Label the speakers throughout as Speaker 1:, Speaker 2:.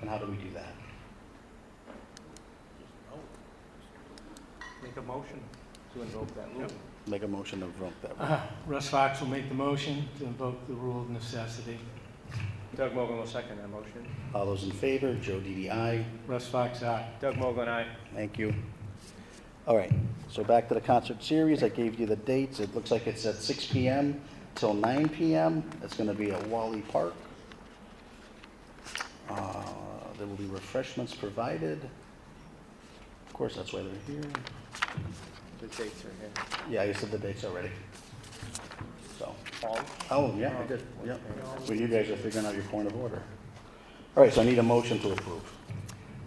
Speaker 1: And how do we do that?
Speaker 2: Make a motion to invoke that rule.
Speaker 1: Make a motion to vote that.
Speaker 3: Uh, Russ Fox will make the motion to invoke the rule of necessity.
Speaker 2: Doug Mogul will second that motion.
Speaker 1: All those in favor, Joe DDI.
Speaker 3: Russ Fox, aye.
Speaker 2: Doug Mogul and I.
Speaker 1: Thank you. All right, so back to the concert series. I gave you the dates. It looks like it's at six PM till nine PM. It's gonna be at Wally Park. Uh, There will be refreshments provided. Of course, that's why they're here.
Speaker 2: The dates are here.
Speaker 1: Yeah, you said the dates already. So,
Speaker 2: Paul?
Speaker 1: oh, yeah, I did, yeah. Well, you guys are figuring out your point of order. All right, so I need a motion to approve.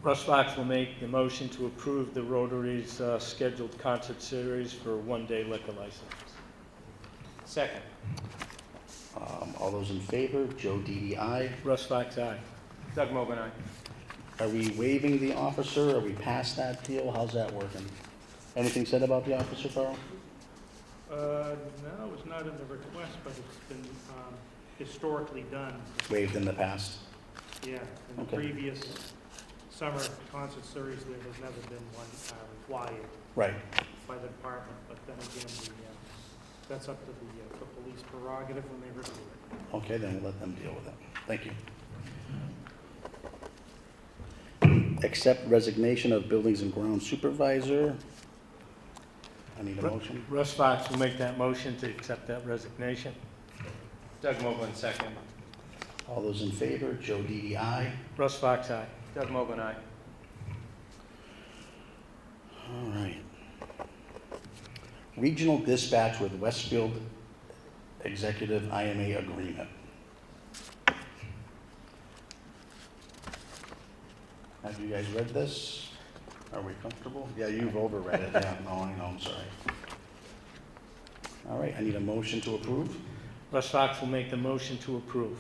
Speaker 3: Russ Fox will make the motion to approve the Rotary's uh, scheduled concert series for one-day liquor license.
Speaker 2: Second.
Speaker 1: Um, All those in favor, Joe DDI.
Speaker 3: Russ Fox, aye.
Speaker 2: Doug Mogul and I.
Speaker 1: Are we waiving the officer? Are we past that deal? How's that working? Anything said about the officer, Carl?
Speaker 4: Uh, No, it's not in the request, but it's been um, historically done,
Speaker 1: Waived in the past.
Speaker 4: yeah. In the
Speaker 1: Okay.
Speaker 4: previous summer concert series, there has never been one uh, required
Speaker 1: Right.
Speaker 4: by the department, but then again, the, uh, that's up to the, uh, the police prerogative when they review it.
Speaker 1: Okay, then we'll let them deal with it. Thank you. Accept resignation of Buildings and Ground Supervisor. I need a motion.
Speaker 3: Russ Fox will make that motion to accept that resignation.
Speaker 2: Doug Mogul and second.
Speaker 1: All those in favor, Joe DDI.
Speaker 3: Russ Fox, aye.
Speaker 2: Doug Mogul and I.
Speaker 1: All right. Regional dispatch with Westfield Executive IMA Agreement. Have you guys read this? Are we comfortable? Yeah, you've overread it. Yeah, no, I know, I'm sorry. All right, I need a motion to approve.
Speaker 3: Russ Fox will make the motion to approve.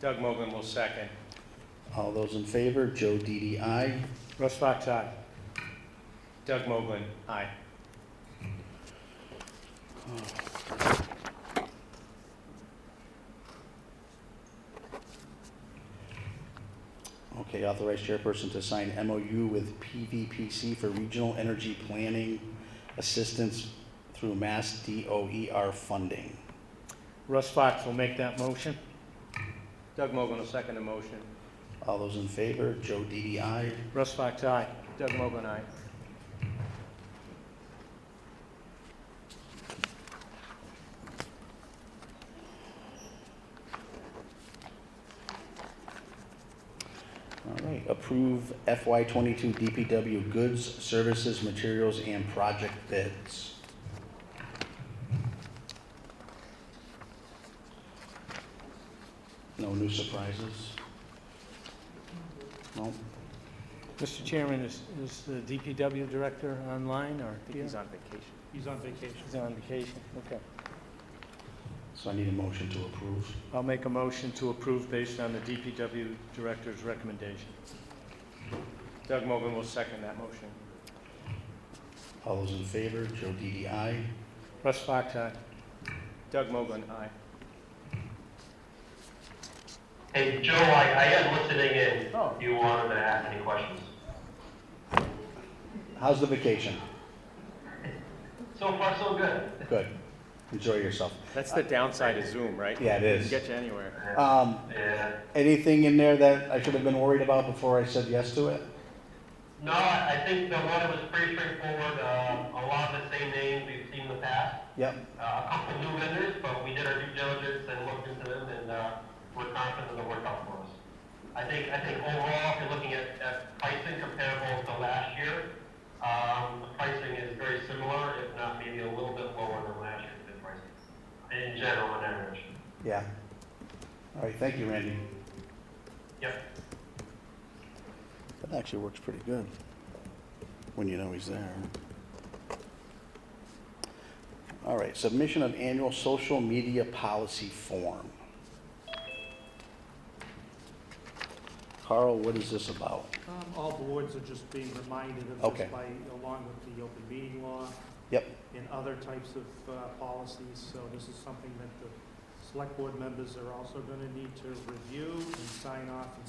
Speaker 2: Doug Mogul will second.
Speaker 1: All those in favor, Joe DDI.
Speaker 3: Russ Fox, aye.
Speaker 2: Doug Mogul, aye.
Speaker 1: Okay, authorized chairperson to sign MOU with PVPC for regional energy planning assistance through Mass DOER funding.
Speaker 3: Russ Fox will make that motion.
Speaker 2: Doug Mogul will second the motion.
Speaker 1: All those in favor, Joe E DDI.
Speaker 3: Russ Fox, aye.
Speaker 2: Doug Mogul and I.
Speaker 1: All right, approve FY twenty-two DPW goods, services, materials, and project bids. No new surprises? No?
Speaker 3: Mr. Chairman, is, is the DPW director online or?
Speaker 2: I think he's on vacation.
Speaker 4: He's on vacation.
Speaker 3: He's on vacation, okay.
Speaker 1: So I need a motion to approve.
Speaker 3: I'll make a motion to approve based on the DPW director's recommendation.
Speaker 2: Doug Mogul will second that motion.
Speaker 1: All those in favor, Joe DDI.
Speaker 3: Russ Fox, aye.
Speaker 2: Doug Mogul and I.
Speaker 5: Hey, Joe, I, I am listening in.
Speaker 2: Oh.
Speaker 5: Do you want to ask any questions?
Speaker 1: How's the vacation?
Speaker 5: So far, so good.
Speaker 1: Good. Enjoy yourself.
Speaker 2: That's the downside of Zoom, right?
Speaker 1: Yeah, it
Speaker 2: Doesn't
Speaker 1: is.
Speaker 2: get you anywhere.
Speaker 1: Um,
Speaker 5: Yeah.
Speaker 1: anything in there that I should have been worried about before I said yes to it?
Speaker 5: No, I I think the one was pretty straightforward. Uh, a lot of the same names we've seen in the past.
Speaker 1: Yep.
Speaker 5: Uh, a couple new vendors, but we did our due diligence and looked into them, and uh, we're confident they'll work out for us. I think I think overall, if you're looking at, at pricing comparable to last year, um, the pricing is very similar, if not maybe a little bit lower than last year's bid pricing in general, on average.
Speaker 1: Yeah. All right, thank you, Randy.
Speaker 5: Yep.
Speaker 1: That actually works pretty good, when you know he's there. All right, submission of annual social media policy form. Carl, what is this about?
Speaker 4: Um, All boards are just being reminded of
Speaker 1: Okay.
Speaker 4: this by, along with the open meeting law.
Speaker 1: Yep.
Speaker 4: And other types of uh, policies, so this is something that the select board members are also gonna need to review and sign off and